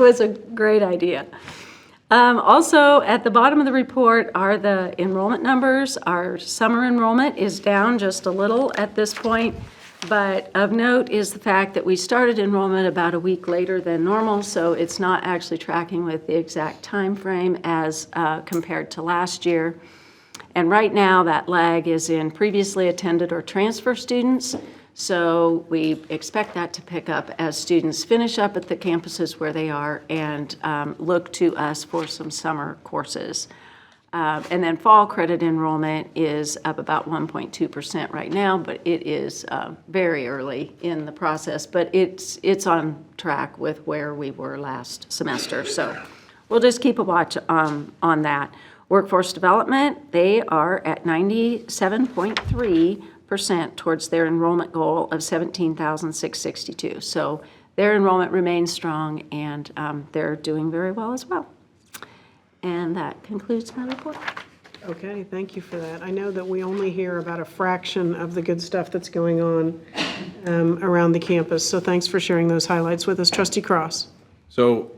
was a great idea. Um, Also, at the bottom of the report are the enrollment numbers. Our summer enrollment is down just a little at this point, but of note is the fact that we started enrollment about a week later than normal, so it's not actually tracking with the exact time frame as uh, compared to last year. And right now, that lag is in previously attended or transfer students. So we expect that to pick up as students finish up at the campuses where they are and um, look to us for some summer courses. Uh, And then fall credit enrollment is up about 1.2% right now, but it is uh, very early in the process. But it's, it's on track with where we were last semester. So We'll just keep a watch um, on that. Workforce development, they are at 97.3% towards their enrollment goal of 17,662. So their enrollment remains strong, and um, they're doing very well as well. And that concludes my report. Okay, thank you for that. I know that we only hear about a fraction of the good stuff that's going on um, around the campus, so thanks for sharing those highlights with us. Trustee Cross? So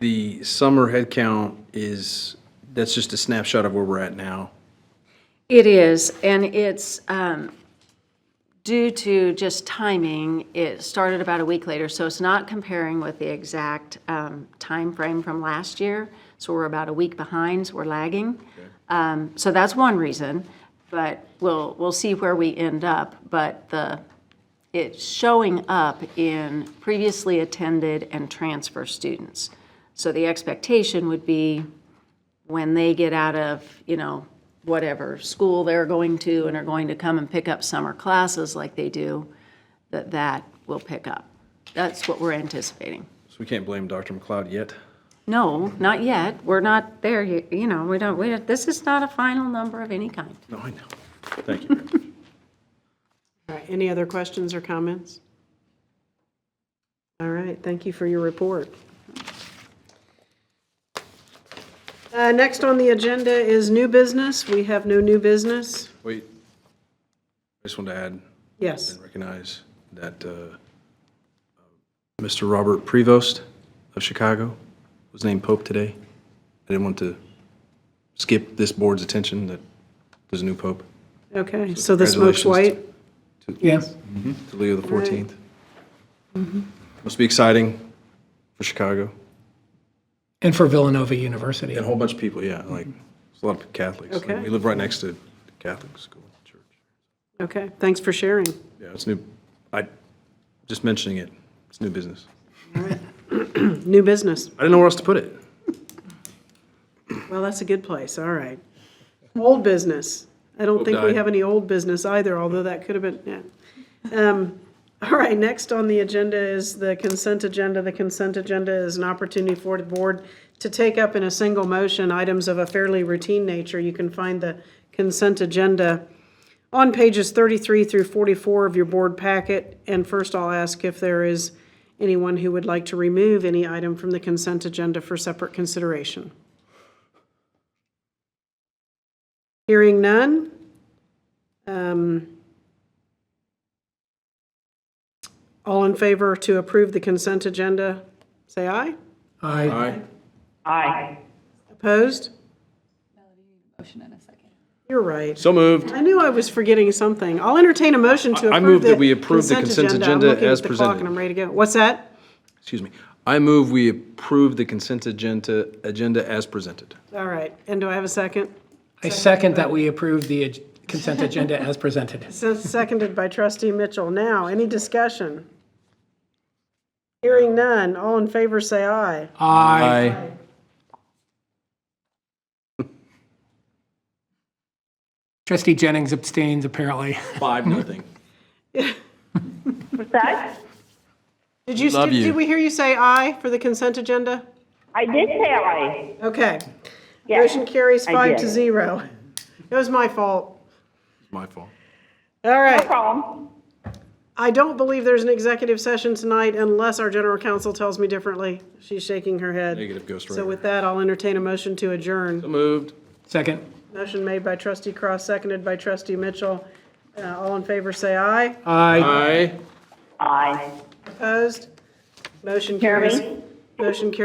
the summer headcount is, that's just a snapshot of where we're at now. It is, and it's um, due to just timing. It started about a week later, so it's not comparing with the exact um, timeframe from last year. So we're about a week behind, so we're lagging. Um, So that's one reason, but we'll, we'll see where we end up. But the, it's showing up in previously attended and transfer students. So the expectation would be when they get out of, you know, whatever school they're going to and are going to come and pick up summer classes like they do, that that will pick up. That's what we're anticipating. So we can't blame Dr. McLeod yet. No, not yet. We're not there, y- you know, we don't, we, this is not a final number of any kind. No, I know. Thank you. All right, any other questions or comments? All right, thank you for your report. Uh, Next on the agenda is new business. We have no new business. Wait. I just wanted to add Yes, and recognize that uh, Mr. Robert Prevost of Chicago was named Pope today. I didn't want to skip this board's attention that there's a new Pope okay, so the smoke's Congratulations. white. Yes. to Leo the 14th. Must be exciting for Chicago. And for Villanova University. And a whole bunch of people, yeah, like, it's a lot of Catholics. Like, Okay. We live right next to Catholic school, church. Okay, thanks for sharing. Yeah, it's new, I, just mentioning it, it's new business. New business. I didn't know where else to put it. Well, that's a good place, all right. Old business. I don't think we died. have any old business either, although that could have been, yeah. Um, All right, next on the agenda is the consent agenda. The consent agenda is an opportunity for the board to take up in a single motion items of a fairly routine nature. You can find the consent agenda on pages 33 through 44 of your board packet. And first, I'll ask if there is anyone who would like to remove any item from the consent agenda for separate consideration. Hearing none. Um, All in favor to approve the consent agenda, say aye. I, right. Opposed? motion in a second. You're right. So moved. I knew I was forgetting something. I'll entertain a motion to I- I approve move that we the approve the consent consent agenda. agenda I'm looking as at the clock presented. and I'm ready to go. What's that? Excuse me. I move we approve the consent agenda, agenda as presented. All right. And do I have a second? I second that we approve the ag- consent agenda as presented. Se- Seconded by trustee Mitchell. Now, any discussion? Hearing none. All in favor, say aye. I, Aye. trustee Jennings abstains apparently. Five, nothing. That? Did you, Love did you. did we hear you say aye for the consent agenda? I did say aye. Okay. Yes. Motion carries I five did. to zero. It was my fault. My fault. All No right. problem. I don't believe there's an executive session tonight unless our general counsel tells me differently. She's shaking her head. Negative ghostwriter. So with that, I'll entertain a motion to So adjourn. moved. Second. Motion made by trustee Cross, seconded by trustee Mitchell. Uh, All in favor, say aye. I. Aye. Aye. Opposed? Motion Jeremy? carries. Motion carries